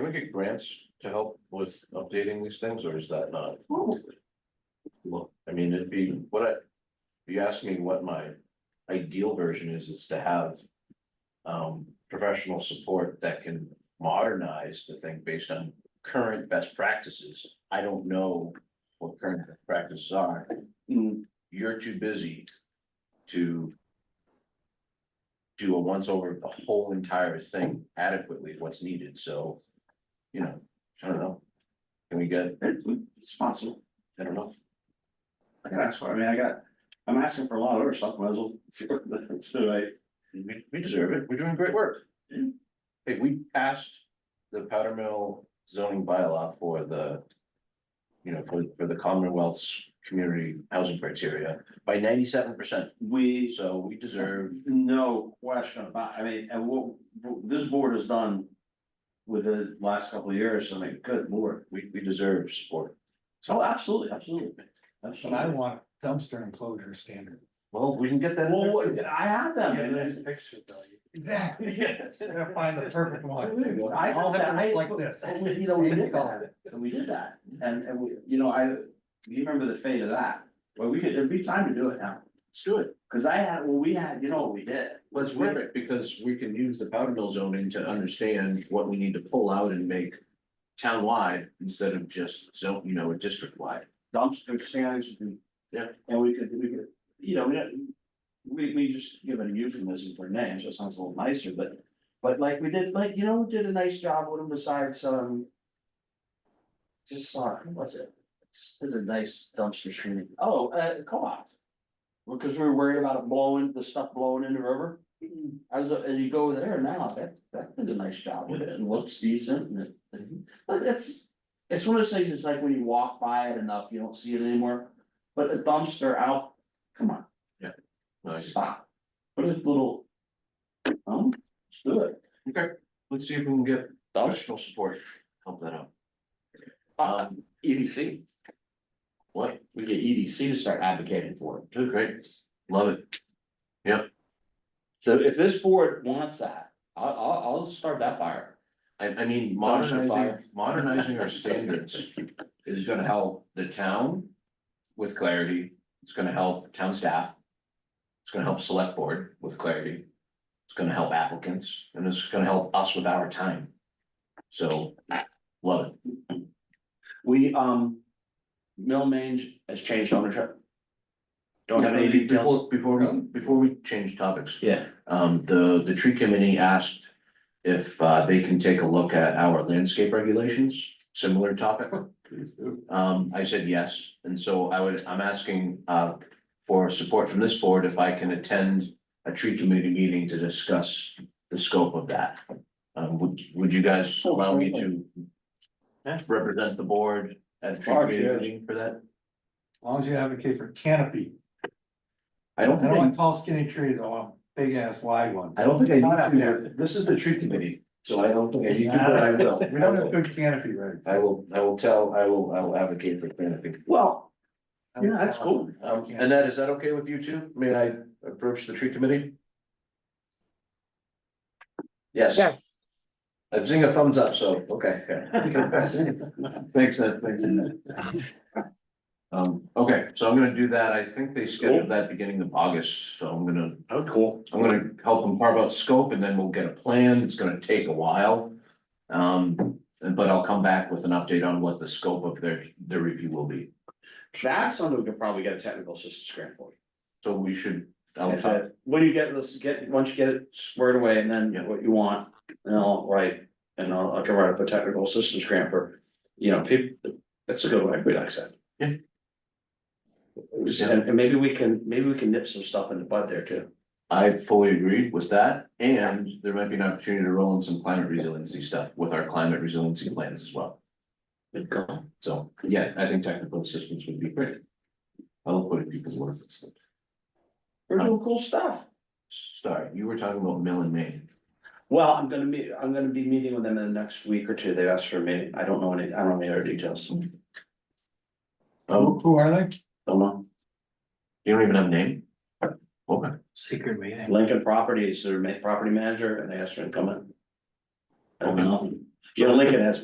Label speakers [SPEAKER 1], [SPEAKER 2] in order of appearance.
[SPEAKER 1] ever get grants to help with updating these things, or is that not? Well, I mean, it'd be, what I, if you ask me what my ideal version is, is to have. Um, professional support that can modernize the thing based on current best practices. I don't know what current best practices are,
[SPEAKER 2] Mm,
[SPEAKER 1] you're too busy to. Do a once over of the whole entire thing adequately is what's needed, so, you know, I don't know. Can we get,
[SPEAKER 2] it- It's possible.
[SPEAKER 1] I don't know,
[SPEAKER 2] I can ask for, it. I mean, I got, I'm asking for a lot of other stuff, might as well. So I,
[SPEAKER 1] we, we deserve it, we're doing great work.
[SPEAKER 2] Yeah.
[SPEAKER 1] Hey, we passed the powder mill zoning bylaw for the. You know, for, for the Commonwealth's community housing criteria by ninety-seven percent,
[SPEAKER 2] we,
[SPEAKER 1] so we deserve,
[SPEAKER 2] no question about, I mean, and what, what this board has done. With the last couple of years, I mean, good lord.
[SPEAKER 1] we, we deserve support.
[SPEAKER 2] Oh, absolutely, absolutely.
[SPEAKER 3] But I
[SPEAKER 2] Absolutely.
[SPEAKER 3] want dumpster enclosure standard.
[SPEAKER 1] Well, we can get that. in
[SPEAKER 2] Well,
[SPEAKER 1] there
[SPEAKER 2] what-
[SPEAKER 1] too.
[SPEAKER 2] I have them. and it's-
[SPEAKER 3] picture value. Exactly. You're gonna find the perfect one.
[SPEAKER 2] I have
[SPEAKER 3] All
[SPEAKER 2] that,
[SPEAKER 3] that
[SPEAKER 2] I-
[SPEAKER 3] look like this.
[SPEAKER 2] and we- You know, we
[SPEAKER 3] Same
[SPEAKER 2] did
[SPEAKER 3] color.
[SPEAKER 2] that, and we did that, and, and we, you know, I, you remember the fate of that, well, we could, it'd be time to do it now.
[SPEAKER 1] Let's do it.
[SPEAKER 2] Cause I had, well, we had, you know what we did,
[SPEAKER 1] Well, it's worth it because we can use the powder mill zoning to understand what we need to pull out and make town-wide instead of just zone, you know, district-wide.
[SPEAKER 2] dumpster standards. and-
[SPEAKER 1] Yeah.
[SPEAKER 2] And we could, we could, you know, we, don't- we, we just give it a euphemism for names, that sounds a little nicer, but. But like we did, like, you know, we did a nice job with them besides, um. Just saw, who was it? Just did a nice dumpster screening, oh, uh, co-op. Because we were worried about it blowing, the stuff blowing in the river. I was, and you go there now, that, that did a nice job with it and looks decent and it- and- but it's. It's one of those things, it's like when you walk by it enough, you don't see it anymore, but the dumpster out, come on,
[SPEAKER 1] Nice.
[SPEAKER 2] stop. Put a little. Um, let's do it,
[SPEAKER 1] Let's see if we can get
[SPEAKER 2] dumpster,
[SPEAKER 1] professional support, help that out.
[SPEAKER 2] uh,
[SPEAKER 1] Um,
[SPEAKER 2] EDC,
[SPEAKER 1] what,
[SPEAKER 2] we get EDC to start advocating for it.
[SPEAKER 1] Good, great, love it.
[SPEAKER 2] So if this board wants that, I, I'll, I'll start that fire.
[SPEAKER 1] I, I mean,
[SPEAKER 2] Dumpster
[SPEAKER 1] modernizing,
[SPEAKER 2] fire.
[SPEAKER 1] modernizing our standards is gonna help the town with clarity. It's gonna help town staff. It's gonna help select board with clarity. It's gonna help applicants and it's gonna help us with our time. So, love it.
[SPEAKER 2] We, um, Mill Mange has changed ownership. Don't have any
[SPEAKER 1] Yeah, Before,
[SPEAKER 2] details.
[SPEAKER 1] before, we- Um, before we change topics,
[SPEAKER 2] Yeah.
[SPEAKER 1] um, the, the tree committee asked if, uh, they can take a look at our landscape regulations, similar topic. Um, I said yes, and so I would, I'm asking, uh, for support from this board if I can attend a tree committee meeting to discuss the scope of that. Um, would, would you guys allow me to represent the board at a tree
[SPEAKER 3] Barb,
[SPEAKER 1] committee
[SPEAKER 3] yes.
[SPEAKER 1] meeting for that?
[SPEAKER 3] As long as you advocate for canopy.
[SPEAKER 1] I don't
[SPEAKER 3] I don't want
[SPEAKER 1] think,
[SPEAKER 3] tall skinny trees, I want big ass wide ones.
[SPEAKER 1] I don't think I
[SPEAKER 3] Not up
[SPEAKER 1] need
[SPEAKER 3] there.
[SPEAKER 1] to, this is the tree committee, so I don't think I need to, but I will.
[SPEAKER 3] We don't have good canopy regs.
[SPEAKER 1] I will, I will tell, I will, I will advocate for canopy.
[SPEAKER 2] Well, yeah, that's cool.
[SPEAKER 1] Um, Annette, is that okay with you two? May I approach the tree committee? Yes,
[SPEAKER 4] Yes,
[SPEAKER 1] I'm seeing a thumbs up, so, okay. Thanks, Ed, thanks. Um, okay, so I'm gonna do that. I think they scheduled that beginning of August, so I'm gonna,
[SPEAKER 2] Oh, cool.
[SPEAKER 1] I'm gonna help them carve out scope and then we'll get a plan. It's gonna take a while. Um, and- but I'll come back with an update on what the scope of their, their review will be.
[SPEAKER 2] That's something we could probably get a technical assistance grant for.
[SPEAKER 1] So we should, I'll
[SPEAKER 2] If it- What do you get, let's get, once you get it squared away and then
[SPEAKER 1] Yeah.
[SPEAKER 2] what you want, and I'll write, and I'll, I can write up a technical assistance grant for, you know, people, that's a good one, we'd accept.
[SPEAKER 1] Yeah.
[SPEAKER 2] Just- And, and maybe we can, maybe we can nip some stuff in the bud there too.
[SPEAKER 1] I fully agree with that, and there might be an opportunity to roll in some climate resiliency stuff with our climate resiliency plans as well.
[SPEAKER 2] Good call.
[SPEAKER 1] So, yeah, I think technical assistance would be great. I'll put it because what if it's,
[SPEAKER 2] We're doing cool stuff.
[SPEAKER 1] sorry, you were talking about mill and main.
[SPEAKER 2] Well, I'm gonna meet, I'm gonna be meeting with them in the next week or two, they asked for me, I don't know any, I don't know any other details, don't
[SPEAKER 1] Oh,
[SPEAKER 3] Who who are they?
[SPEAKER 2] know.
[SPEAKER 1] you don't even have a name? Oh, Okay,
[SPEAKER 3] Secret meeting.
[SPEAKER 2] Lincoln Properties, their ma- property manager, and they asked her to come in. I don't know. You know, Lincoln has